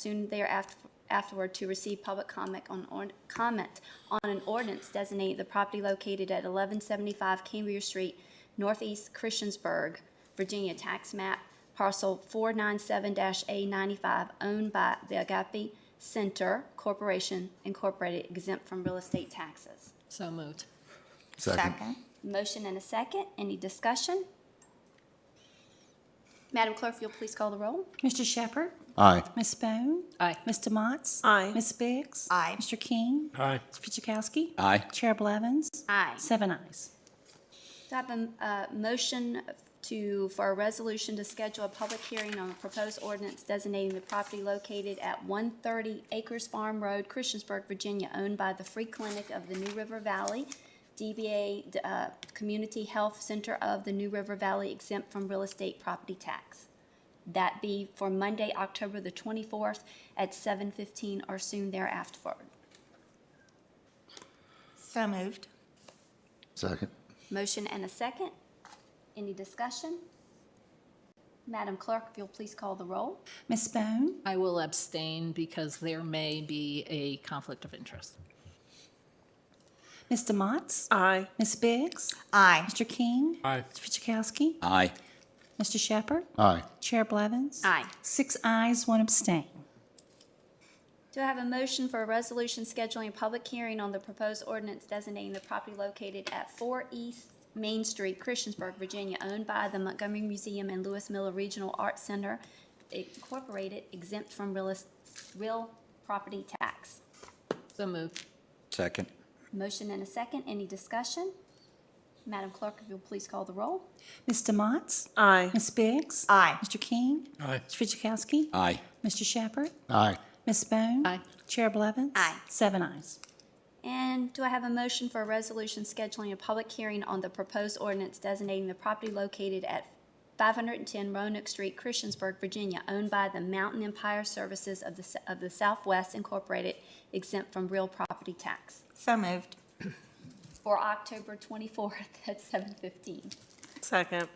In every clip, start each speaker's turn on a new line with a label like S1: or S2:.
S1: soon thereafter afterward to receive public comment on, ord- comment on an ordinance designating the property located at eleven seventy-five Cambria Street, Northeast Christiansburg, Virginia tax map parcel four nine seven A ninety-five owned by the Agape Center Corporation Incorporated exempt from real estate taxes.
S2: So moved.
S3: Second.
S1: Motion and a second. Any discussion? Madam Clerk, if you'll please call the roll.
S4: Mr. Shepherd?
S3: Aye.
S4: Ms. Bone?
S2: Aye.
S4: Mr. Motts?
S5: Aye.
S4: Ms. Biggs?
S5: Aye.
S4: Mr. King?
S6: Aye.
S4: Mr. Fidzikowski?
S3: Aye.
S4: Chair Blevins?
S1: Aye.
S4: Seven ayes.
S1: Do I have a uh, motion to, for a resolution to schedule a public hearing on a proposed ordinance designating the property located at 130 Acres Farm Road, Christiansburg, Virginia, owned by the Free Clinic of the New River Valley, DBA uh, Community Health Center of the New River Valley exempt from real estate property tax? That be for Monday, October the 24th at 7:15 or soon thereafter.
S5: So moved.
S3: Second.
S1: Motion and a second. Any discussion? Madam Clerk, if you'll please call the roll.
S4: Ms. Bone?
S2: I will abstain because there may be a conflict of interest.
S4: Mr. Motts?
S5: Aye.
S4: Ms. Biggs?
S5: Aye.
S4: Mr. King?
S6: Aye.
S4: Mr. Fidzikowski?
S3: Aye.
S4: Mr. Shepherd?
S3: Aye.
S4: Chair Blevins?
S1: Aye.
S4: Six ayes, one abstain.
S1: Do I have a motion for a resolution scheduling a public hearing on the proposed ordinance designating the property located at 4 East Main Street, Christiansburg, Virginia, owned by the Montgomery Museum and Lewis Miller Regional Arts Center Incorporated exempt from real, real property tax?
S2: So moved.
S3: Second.
S1: Motion and a second. Any discussion? Madam Clerk, if you'll please call the roll.
S4: Mr. Motts?
S5: Aye.
S4: Ms. Biggs?
S5: Aye.
S4: Mr. King?
S6: Aye.
S4: Mr. Fidzikowski?
S3: Aye.
S4: Mr. Shepherd?
S3: Aye.
S4: Ms. Bone?
S2: Aye.
S4: Chair Blevins?
S1: Aye.
S4: Seven ayes.
S1: And do I have a motion for a resolution scheduling a public hearing on the proposed ordinance designating the property located at 510 Roanoke Street, Christiansburg, Virginia, owned by the Mountain Empire Services of the S- of the Southwest Incorporated, exempt from real property tax,
S5: So moved.
S1: for October 24th at 7:15.
S5: Second.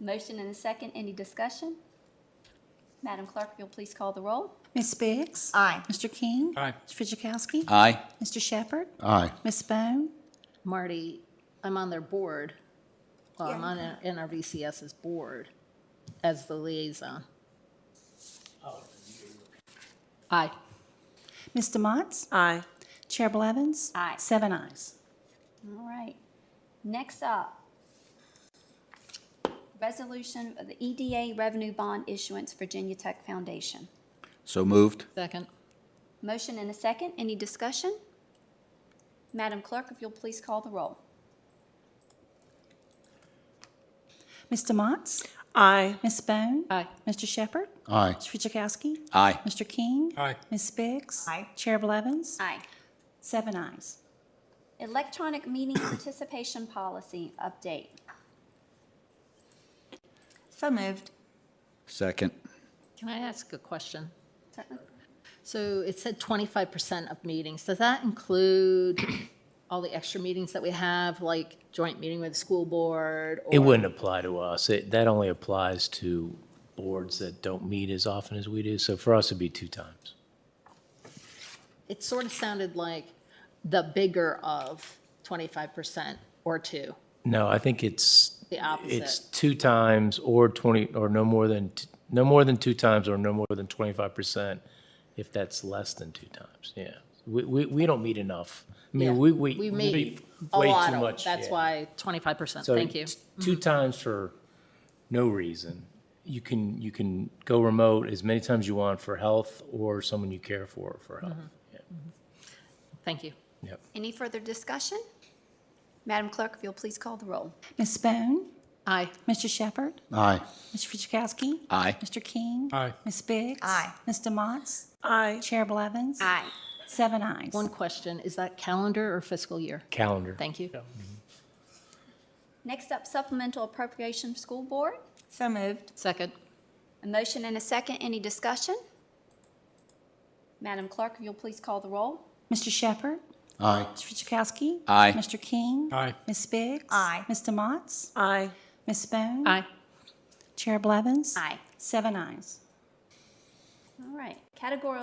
S1: Motion and a second, any discussion? Madam Clerk, if you'll please call the roll.
S4: Ms. Biggs?
S5: Aye.
S4: Mr. King?
S6: Aye.
S4: Mr. Fidzikowski?
S3: Aye.
S4: Mr. Shepherd?
S3: Aye.
S4: Ms. Bone?
S2: Marty, I'm on their board. Well, I'm on NRVCS's board as the liaison. Oh, Aye.
S4: Mr. Motts?
S5: Aye.
S4: Chair Blevins?
S1: Aye.
S4: Seven ayes.
S1: All right. Next up, resolution of the EDA revenue bond issuance, Virginia Tech Foundation.
S3: So moved.
S2: Second.
S1: Motion and a second. Any discussion? Madam Clerk, if you'll please call the roll.
S4: Mr. Motts?
S5: Aye.
S4: Ms. Bone?
S2: Aye.
S4: Mr. Shepherd?
S3: Aye.
S4: Mr. Fidzikowski?
S3: Aye.
S4: Mr. King?
S6: Aye.
S4: Ms. Biggs?
S5: Aye.
S4: Chair Blevins?
S1: Aye.
S4: Seven ayes.
S1: Electronic meeting participation policy update.
S5: So moved.
S3: Second.
S2: Can I ask a question?
S1: Certainly.
S2: So it said 25% of meetings. Does that include all the extra meetings that we have, like joint meeting with the school board?
S7: It
S2: or-
S7: wouldn't apply to us. It, that only applies to boards that don't meet as often as we do. So for us, it'd be two times.
S2: It sort of sounded like the bigger of 25% or two.
S7: No, I think it's.
S2: The opposite.
S7: It's two times or twenty, or no more than, t- no more than two times or no more than twenty-five percent if that's less than two times, yeah. We, we, we don't meet enough. I
S2: Yeah.
S7: mean, we, we.
S2: We made a
S7: way too
S2: lot of,
S7: much,
S2: that's
S7: yeah.
S2: why 25%,
S7: So
S2: thank you. Mm-hmm.
S7: t- Two times for no reason. You can, you can go remote as many times you want for health or someone you care for for health.
S2: Thank you.
S7: Yeah. Yep.
S1: Any further discussion? Madam Clerk, if you'll please call the roll.
S4: Ms. Bone?
S2: Aye.
S4: Mr. Shepherd?
S3: Aye.
S4: Mr. Fidzikowski?
S3: Aye.
S4: Mr. King?
S6: Aye.
S4: Ms. Biggs?
S5: Aye.
S4: Mr. Motts?
S5: Aye.
S4: Chair Blevins?
S1: Aye.
S4: Seven ayes.
S2: One question, is that calendar or fiscal year?
S7: Calendar.
S2: Thank you.
S1: Next up, supplemental appropriation school board.
S5: So moved.
S2: Second.
S1: A motion and a second. Any discussion? Madam Clerk, if you'll please call the roll.
S4: Mr. Shepherd?
S3: Aye.
S4: Mr. Fidzikowski?
S3: Aye.
S4: Mr. King?
S6: Aye.
S4: Ms. Biggs?
S5: Aye.
S4: Mr. Motts?
S5: Aye.
S4: Ms. Bone?
S2: Aye.
S4: Chair Blevins?
S1: Aye.
S4: Seven ayes.
S1: All right. Categorical